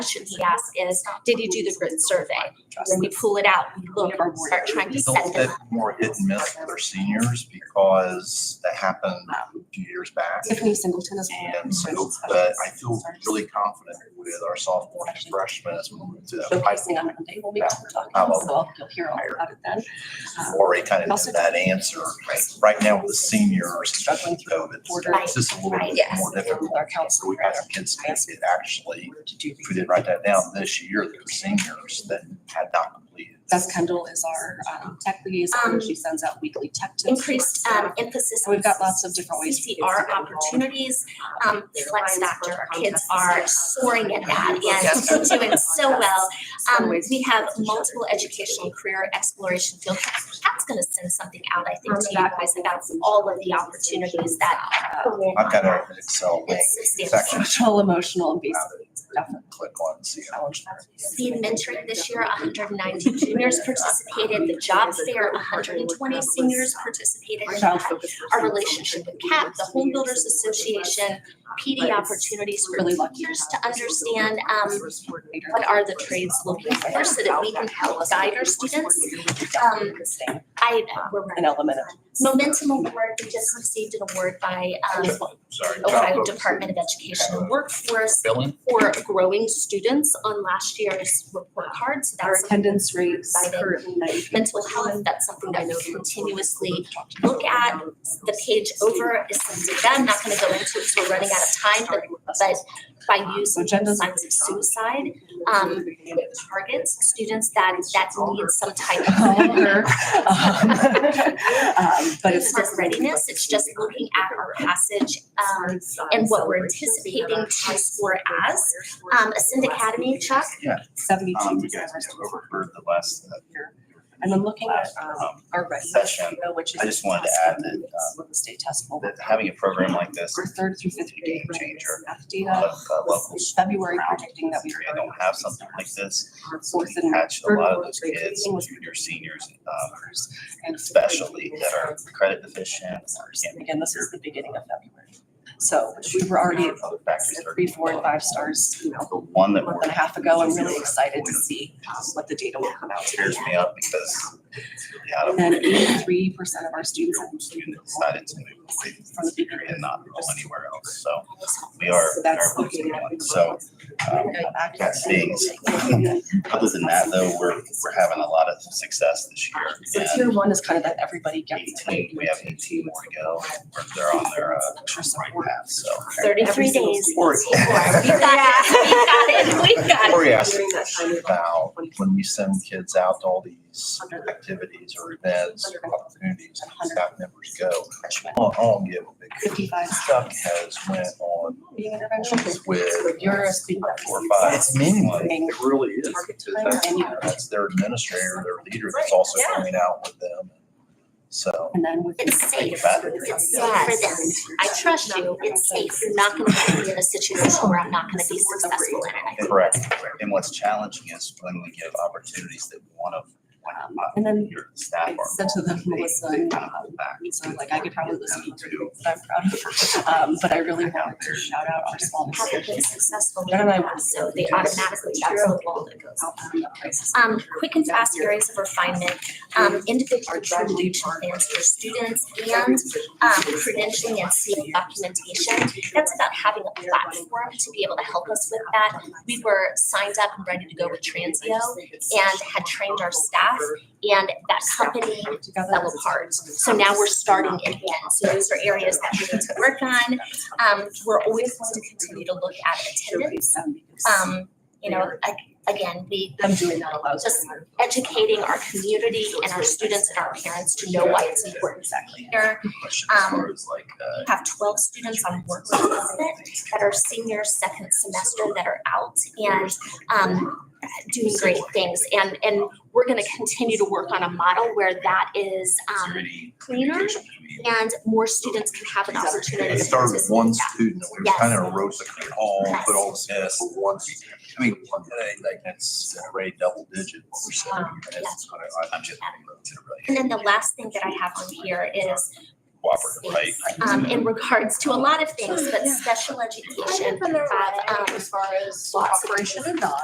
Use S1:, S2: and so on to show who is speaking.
S1: question we ask is, did you do the grid survey? When we pull it out, we look, we start trying to
S2: Don't
S1: set them.
S2: that more hit and miss with our seniors because that happened a few years back.
S3: Tiffany Singleton is.
S2: And so, but I feel really confident with our sophomore and freshmen as we move to that pipe
S3: Showcasing on Monday, we'll be talking,
S2: How about-
S3: so you'll hear all about it then. Um,
S2: already kind of
S3: Also-
S2: did that answer. Right now with the seniors,
S3: Struggling
S2: especially
S3: through
S2: COVID,
S3: order.
S2: it's just a little
S1: Right,
S2: bit
S1: yes.
S2: more difficult.
S3: With our
S2: So
S3: counselor.
S2: we've had some kids that did actually,
S3: To do.
S2: if we did write that down this year, there were seniors that had not completed.
S3: Beth Kendall is our um, tech liaison. She sends out weekly tech tips.
S1: Increased um, emphasis.
S3: We've got lots of different ways. for kids to
S1: CCR
S3: get involved.
S1: opportunities, um, flex factor, our kids are soaring at that and
S3: Yes.
S1: doing so well. Um,
S3: Ways
S1: we have
S3: to share.
S1: multiple educational career exploration field trips. Pat's gonna send something out, I think, to you guys about all of the opportunities that.
S2: I've got an Excel link
S1: It's substantial.
S2: section.
S3: Social, emotional, and basic definitely
S2: Click on and see.
S3: challenge.
S1: Seed mentoring this year, hundred and ninety juniors participated, the job fair, hundred and twenty seniors participated. in
S3: Child
S1: that.
S3: focused.
S1: Our relationship with CAP, the Home Builders Association, PD opportunities for
S3: Really lucky to
S1: teachers
S3: have
S1: to understand, um,
S3: Coordinator.
S1: what are the trades looking for so that we can help guide our students. Um, I, uh, we're,
S3: An element of.
S1: Momentum Award, we just received an award by, um,
S2: Sorry.
S1: Ohio Department of Education and Workforce
S2: Billing?
S1: for growing students on last year's report card, so
S3: Our
S1: that's something
S3: attendance rates
S1: Excited.
S3: currently ninety.
S1: mental health, that's something that we continuously look at. The page over is something that I'm not gonna go into, because we're running out of time, but, but
S3: Ah,
S1: by using
S3: Agendas.
S1: signs of suicide, um, it targets students that, that need some type of.
S3: Hunger. Um, But it's.
S1: It's readiness, it's just looking at our passage, um, and what we're anticipating to score as. Um, Ascend Academy, Chuck,
S2: Um,
S3: Seventy-two
S2: you
S3: percent of our
S2: guys have
S3: students
S2: overheard the last. uh,
S3: here. And then looking at um,
S2: um,
S3: our
S2: session,
S3: regulation, which is.
S2: I just wanted to add that, uh,
S3: With the state test will.
S2: that having a program like this,
S3: Our third through fifth grade
S2: Game changer.
S3: math
S2: a
S3: data.
S2: lot of uh, locals
S3: was February predicting that we.
S2: I don't have something like this.
S3: Our Fourth and.
S2: Catch a
S3: third
S2: lot of
S3: grade
S2: those
S3: grade
S2: kids,
S3: reading was
S2: junior, seniors, um,
S3: ours, and fifth grade
S2: especially that are credit deficient.
S3: was ours. And again, this is the beginning of February. So we were already
S2: Already
S3: at
S2: other factors are.
S3: three, four, and five stars, you know,
S2: The one
S3: a
S2: that
S3: month and a
S2: we're-
S3: half ago. I'm really excited to see um, what the data will come out to be.
S2: tears me up because the out
S3: And
S2: of
S3: then eighty-three percent of our students have
S2: students decided to move away
S3: from the beginning.
S2: and not go anywhere else. So we are.
S3: So that's
S2: we are
S3: looking
S2: losing one.
S3: at.
S2: So um, that's being, other than that though, we're, we're having a lot of success this
S3: So
S2: year.
S3: tier
S2: And
S3: one is kind of that everybody gets. it.
S2: eighteen, we have eighteen more to go. We're- They're on their uh,
S3: Extra
S2: right
S3: support.
S2: path, so.
S1: thirty-three
S3: Every single
S1: days.
S3: student.
S2: Or-
S1: Four. We've got it, we've got it, we've got it.
S2: Lori asked
S3: During that time, we've
S2: about when we send kids out to all these activities or events or opportunities, and staff members go. I don't- I don't give a big
S3: Fifty-five.
S2: Chuck has went on
S3: Being intervention.
S2: with
S3: You're a student.
S2: four or five.
S3: It's
S2: meaningless.
S3: Being
S2: It really is.
S3: Target
S2: because
S3: time
S2: that's-
S3: and you-
S2: That's their administrator, their leader that's also
S4: Yeah.
S2: coming out with them. So
S3: And then with.
S1: It's safe. It's safe
S3: Yes.
S1: for them. I trust you. It's safe. You're not gonna put me in a situation where I'm not gonna be successful in it.
S2: correct. And what's challenging is when we give opportunities that one of, one of my-
S3: um, And then
S2: your
S3: I
S2: staff are.
S3: said to them, Melissa,
S2: They
S3: and
S2: kind of hold back.
S3: so like I could probably listen to
S2: Two.
S3: it, but I'm proud of. Um, but I really wanted to shout out our small
S1: Haven't been
S3: decisions.
S1: successful.
S3: Jen and I were-
S1: So they automatically, that's the wall that goes.
S3: out from the crisis.
S1: Um, quick and fast areas of refinement, um, individual contribution plans for students and um, credentialing and CA documentation. That's about having a platform to be able to help us with that. We were signed up and ready to go with Transio and had trained our staff and that company
S3: Together.
S1: fell apart. So now we're starting again. So those are areas that we need to work on. Um, we're always going to continue to look at attendance. Um, you know, a- again, we
S3: Them doing that allows.
S1: Just educating our community and our students and our parents to know why it's important.
S3: Exactly.
S1: Here,
S2: Question as
S1: Um,
S2: far as like, uh,
S1: we have twelve students on work placement that are senior second semester that are out and um doing great things. And and we're gonna continue to work on a model where that is
S2: is there
S1: um
S2: any
S1: cleaner
S2: communication between-
S1: and more students can have an opportunity
S2: It
S1: to
S2: started with one
S1: participate.
S2: student, we
S1: Yes.
S2: kind of wrote the call,
S1: Yes.
S2: put all this for one. student. I mean, one day, like, that's already double digit percent.
S1: Um,
S2: And it's gonna- I- I'm just-
S1: And then the last thing that I have on here is
S2: cooperative, right?
S1: um, in regards to a lot of things, but special education,
S4: Kind of an array
S1: um,
S4: As far as
S1: lots of
S3: Operation and not.